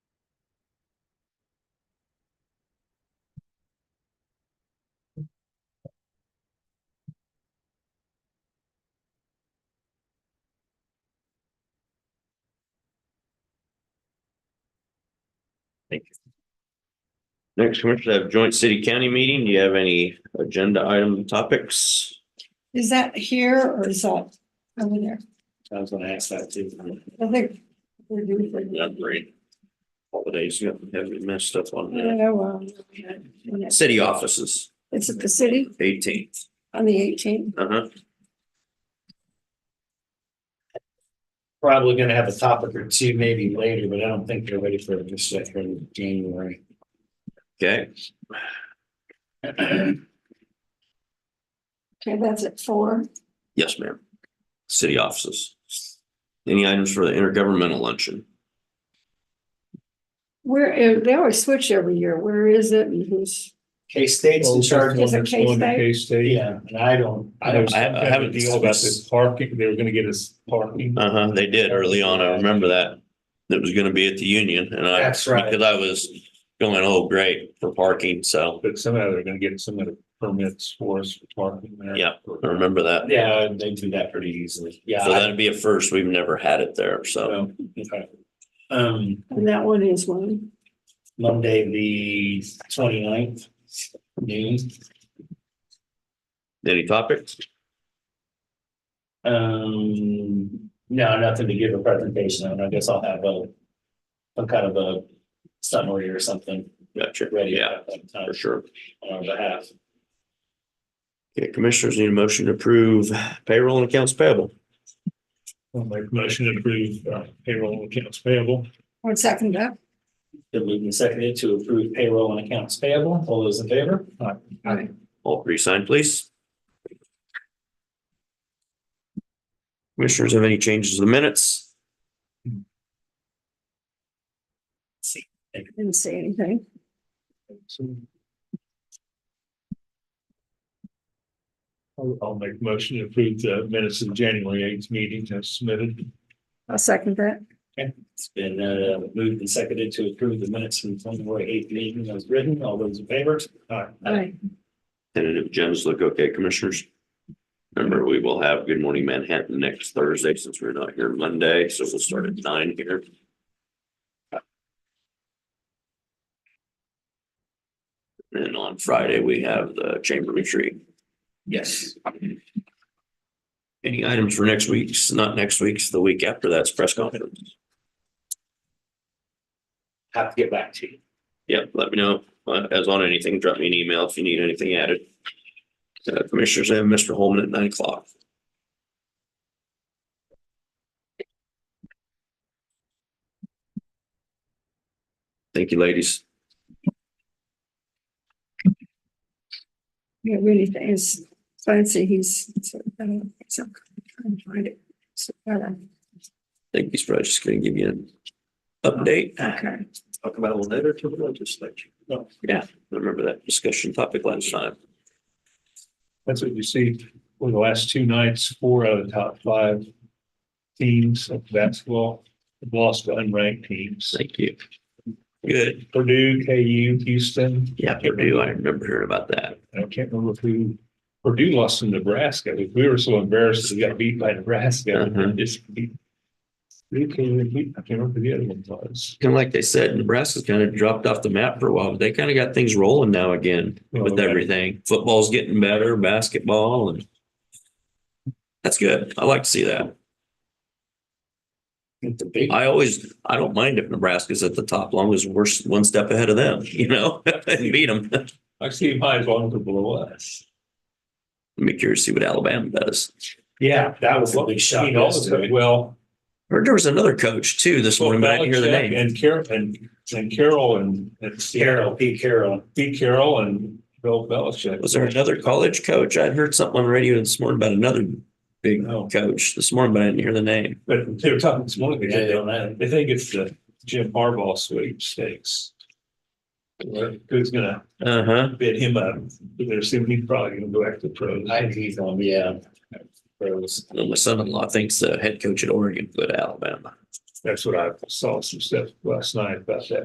Thank you. Next, Commissioners, have joint city county meeting. Do you have any agenda item topics? Is that here or is that over there? I was gonna ask that too. I think. we're due for- Upgrade. Holidays, you have messed up on the Yeah, well, yeah. city offices, It's at the city eighteenth. on the eighteenth. Uh huh. probably gonna have a topic or two maybe later, but I don't think they're ready for it just yet for January. Okay, Okay, that's at four. yes, ma'am. City offices. Any items for the intergovernmental luncheon? Where, eh, they always switch every year. Where is it and who's? K-State's in charge. Is it Going to K-State? K-State. Yeah, and I don't, I There don't, was I- I some kind of haven't Deal about discussed- this parking, they were gonna get us parking. Uh huh, they did early on. I remember that. It was gonna be at the Union and I. That's right. Because I was going, oh, great, for parking, so But somehow they're gonna get some of the permits for us for parking there. Yeah. I remember that. yeah, they do that pretty easily. Yeah. So I- that'd be a first. We've never had it there, so. So, okay. Um, And that one is one. Monday, the 29th noon. Any topics? Um, no, nothing to give a presentation on. I guess I'll have a some kind of a summary or something Gotcha. ready Yeah, at that time for sure. on our behalf. Okay, commissioners need a motion to approve payroll and accounts payable. I'll make a motion to approve uh, payroll and accounts payable. One second up. Been moved and seconded to approve payroll and accounts payable. All those in favor? Aye. All three signed, please. Commissioners have any changes to the minutes? Didn't say anything. So- I'll, I'll make a motion to approve the minutes of the January eighth meeting as submitted. I'll second that. It's been uh, moved and seconded to approve the minutes from January eighth meeting as written. All those in favor? Aye. Tentative agendas look okay, commissioners. Remember, we will have Good Morning Manhattan next Thursday since we're not here Monday, so we'll start at nine here. And on Friday, we have the chamber retreat. Yes. Any items for next week's, not next week's, the week after that's press conference? Have to get back to you. Yep, let me know, uh, as on anything, drop me an email if you need anything added. Uh, Commissioners, I have Mr. Holman at nine o'clock. Thank you, ladies. Yeah, really things. Fancy he's. I don't- so, I'm trying to find it. So, uh, Thank you, probably just gonna give you an update. Okay. Talk about a letter to the legislature. Oh. Yeah, I remember that discussion topic last time. That's what you see over the last two nights, four out of the top five teams of basketball have lost to unranked teams. Thank you. Good. Purdue, KU, Houston. Yeah, Purdue, I remember hearing about that. I can't remember who Purdue lost to Nebraska. We were so embarrassed. We got beat by Nebraska. Uh-huh. Just beat- Who came and beat? I can't remember who the other one was. kind of like they said, Nebraska's kind of dropped off the map for a while, but they kind of got things rolling now again with Okay. everything. Football's getting better, basketball, and that's good. I like to see that. It's a big- I always, I don't mind if Nebraska's at the top, long as we're s- one step ahead of them, you know, and beat them. I see my as to blow us. Be curious to see what Alabama does. Yeah, that was a big I shot mean, all the time. yesterday. Well. Heard there was another coach too this morning, but I didn't hear the Belichick name. And Carol, and, and Carol and, and Carol, Sierra, Pete Carroll. Pete Carroll and Bill Belichick. Was there another college coach? I'd heard something on the radio this morning about another big No. coach this morning, but I didn't hear the name. But they were talking this morning, Yeah, they they don't don't know. They think it's the Jim Harbaugh sweepstakes. Who's gonna Uh huh. bid him up? They're assuming he's probably gonna go after the pros. I, he's on, um, yeah. Rose. And uh, my son-in-law thinks the head coach at Oregon put Alabama. That's what I saw some stuff last night about that.